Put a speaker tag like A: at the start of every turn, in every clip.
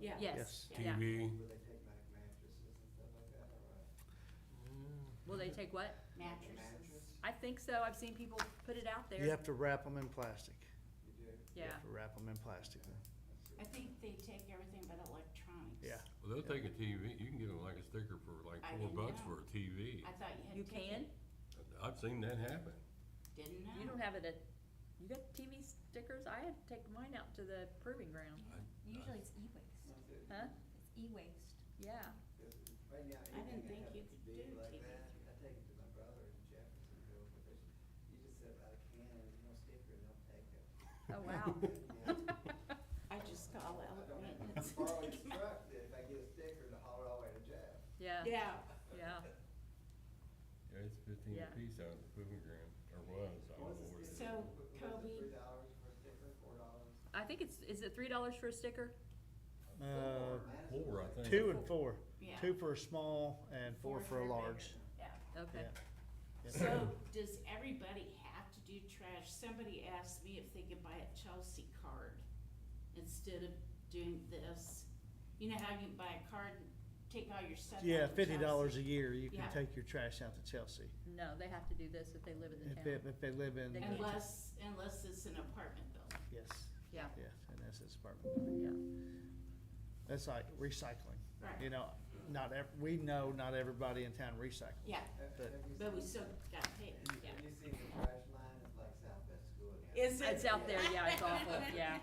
A: Yeah.
B: Yes.
A: Yeah.
B: Yeah.
C: TV,
D: Will they take back mattresses and stuff like that, or? uh,
B: Will they take what?
A: Mattresses.
B: I think so. I've seen people put it out
E: You
B: there.
E: have to wrap them in plastic.
D: You do?
B: Yeah.
E: You have to wrap them in plastic.
A: I think they take everything but electronics.
E: Yeah.
C: well, they'll take a TV, you can get them like a sticker for like
A: I
C: four
A: didn't
C: bucks
A: know.
C: for a TV.
A: I thought you had.
B: You
A: to take
B: can?
A: it.
C: I've seen that happen.
A: Didn't know.
B: You don't have it at, you got TV stickers? I had to take mine out to the proving ground.
F: Usually it's e-waste.
D: Once it-
B: Huh?
F: It's e-waste.
B: Yeah.
D: 'cause Right now,
A: I didn't
D: anything
A: think
D: that
A: you
D: happens
A: could
D: big
A: do
D: like
A: TV
D: that, I take it to my brother in Jeffersonville, but there's, you just set out a can, and there's no sticker, and they'll take it.
B: Oh, wow.
A: I just call
D: I
A: out
D: don't
A: maintenance.
D: have to borrow his truck, if I get a sticker, to haul it all the way to Jeff.
B: Yeah,
A: Yeah,
B: yeah.
C: Yeah, it's fifteen
B: Yeah.
C: apiece out of the proving ground, or was, I
D: What's
C: don't
D: the
C: know where it is.
D: sticker?
A: So,
D: What- what's it,
A: Kobe-
D: Three dollars for a sticker, four dollars?
B: I think it's, is it three dollars for a sticker?
E: Uh,
D: Madison
C: Four, I
D: was
C: think.
D: like-
E: Two and four.
A: yeah.
E: Two for a small and four for a large.
B: Okay.
E: Yeah.
A: So, does everybody have to do trash? Somebody asked me if they could buy a Chelsea card instead of doing this. You know how you can buy a card and take all your stuff out
E: Yeah,
A: to
E: fifty
A: Chelsea?
E: dollars a year, you can
A: Yeah.
E: take your trash out to Chelsea,
B: No, they have to do this if they live in the
E: if they,
B: town.
E: if they live in,
B: They can-
E: yes,
A: Unless, unless it's an apartment building.
E: yes,
B: Yeah,
E: and that's his apartment.
B: yeah.
E: That's like recycling, you
A: Right,
E: know, not ev- we know not everybody in town recycles.
A: yeah,
D: Have-
E: But-
D: have you
A: but we
D: seen-
A: still got paid,
D: have you-
A: yeah.
D: Have you seen the trash line, it's like Southwest School now.
A: Is it?
B: It's out there, yeah, it's awful, yeah,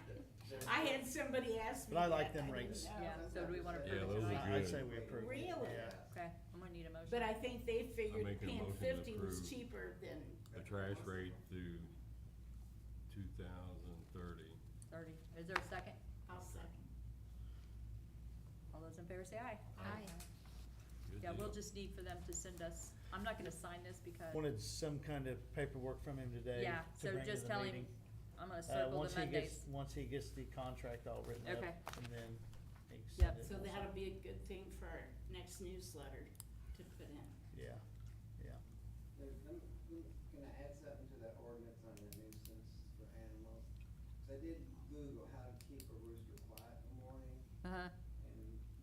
D: There's-
A: I had somebody ask me
E: But I like
A: that,
E: them
A: didn't
E: rates.
A: know.
B: yeah. So do we wanna
C: Yeah,
B: approve it
C: those
B: tonight?
C: are
E: I- I'd
C: good.
E: say we approve. it.
A: Really?
E: Yeah.
B: Okay, I'm gonna need a motion.
A: But I think they figured
C: making a
A: paying
C: motion to
A: fifty was
C: approve.
A: cheaper than,
C: The trash rate through two thousand thirty.
B: Thirty. Is there a second?
A: I'll second.
B: All those in favor say aye.
C: Aye. Good
B: Yeah, we'll
C: deal.
B: just need for them to send us, I'm not gonna sign this because,
E: Wanted some kind of paperwork from him today
B: yeah,
E: to
B: so
E: bring to
B: just
E: the
B: tell him,
E: meeting.
B: I'm gonna
E: Uh,
B: circle
E: once
B: the
E: he gets,
B: Mondays.
E: once he gets the contract all written up,
B: Okay.
E: and then he
B: Yep.
E: can send it.
A: So that'll be a good thing for our next newsletter to put in.
E: Yeah, yeah.
D: There's, I'm, can I add something to that ordinance on the nuisance for animals? 'Cause I did Google how to keep a rooster quiet in the morning,
B: Uh-huh,
D: and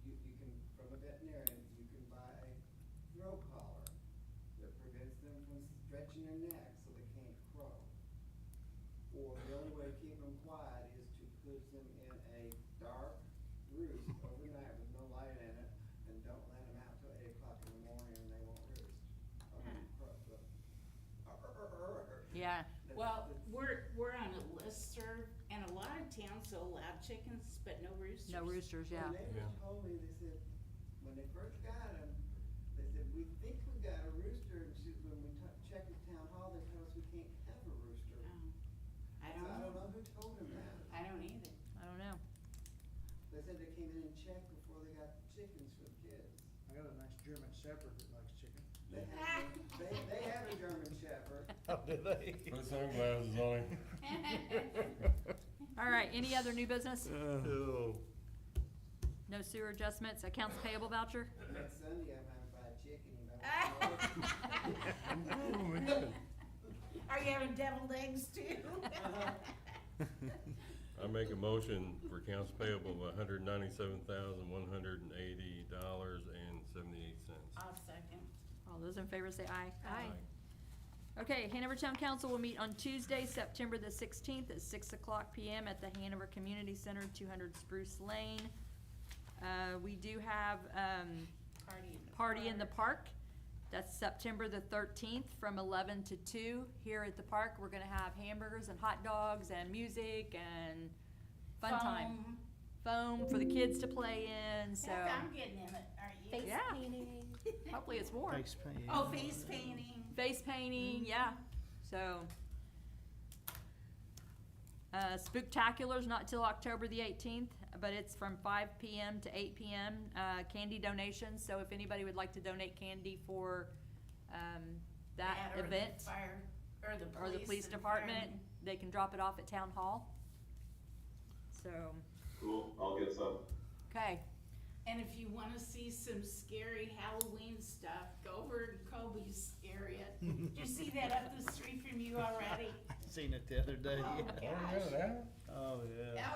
D: you, you can, from a veterinarian, you can buy a throw collar that prevents them from stretching their neck so they can't crow. Or the only way to keep them quiet is to put them in a dark roost overnight with no light in it, and don't let them out till eight o'clock in the morning and they won't roost. Or won't crow, but-
B: yeah,
D: That's-
A: Well,
D: that's-
A: we're, we're on a listserv, and a lot of towns will allow chickens, but no roosters.
B: no roosters, yeah.
D: My neighbors
C: Yeah.
D: told me, they said, when they first got him, they said, we think we got a rooster, and she, when we t- checked at town hall, they told us we can't have a rooster.
A: Oh,
D: So
A: I
D: I
A: don't
D: don't
A: know,
D: know who told him that.
A: I don't either.
B: I don't know.
D: They said they came in and checked before they got chickens for the kids.
G: I got a nice German shepherd that likes chicken.
D: They have, they, they have a German shepherd.
E: How did Oh, they?
C: Put sunglasses on him.
B: All right, any other new business?
E: Oh.
B: No sewer adjustments, accounts payable voucher?
D: Next Sunday, I might buy a chicken, you know.
C: Oh, man.
A: Are you having deviled eggs too?
C: I make a motion for accounts payable of hundred ninety-seven thousand, one hundred and eighty dollars and seventy-eight cents.
A: I'll second.
B: All those in favor say aye.
A: Aye.
B: Okay, Hanover Town Council will meet on Tuesday, September the sixteenth at six o'clock PM at the Hanover Community Center, two hundred Spruce Lane. Uh, we do have, um,
A: Party in the
B: Party in the
A: park.
B: Park. That's September the thirteenth from eleven to two here at the park. We're gonna have hamburgers and hot dogs and music and fun time.
A: Foam.
B: Foam for the kids to play in, so
A: Heck, I'm getting in it, are you?
F: Face
B: Yeah.
F: painting.
B: hopefully it's warm.
E: Thanks, Pam.
A: Oh, face painting.
B: face
A: Mm-hmm.
B: painting, yeah. So, uh, Spooktacular's not till October the eighteenth, but it's from five PM to eight PM, uh, candy donations, so if anybody would like to donate candy for, um, that
A: or the
B: event,
A: Fire, or the
B: or
A: police.
B: the police
A: and
B: department,
A: firemen.
B: they can drop it off at town hall. So,
H: Cool, I'll get some.
B: okay,
A: And if you wanna see some scary Halloween stuff, go over to Kobe's area. Did you see that up the street from you already?
E: Seen it the other day.
A: Oh,
C: Oh,
A: gosh.
C: yeah, that?
E: Oh, yeah.
A: That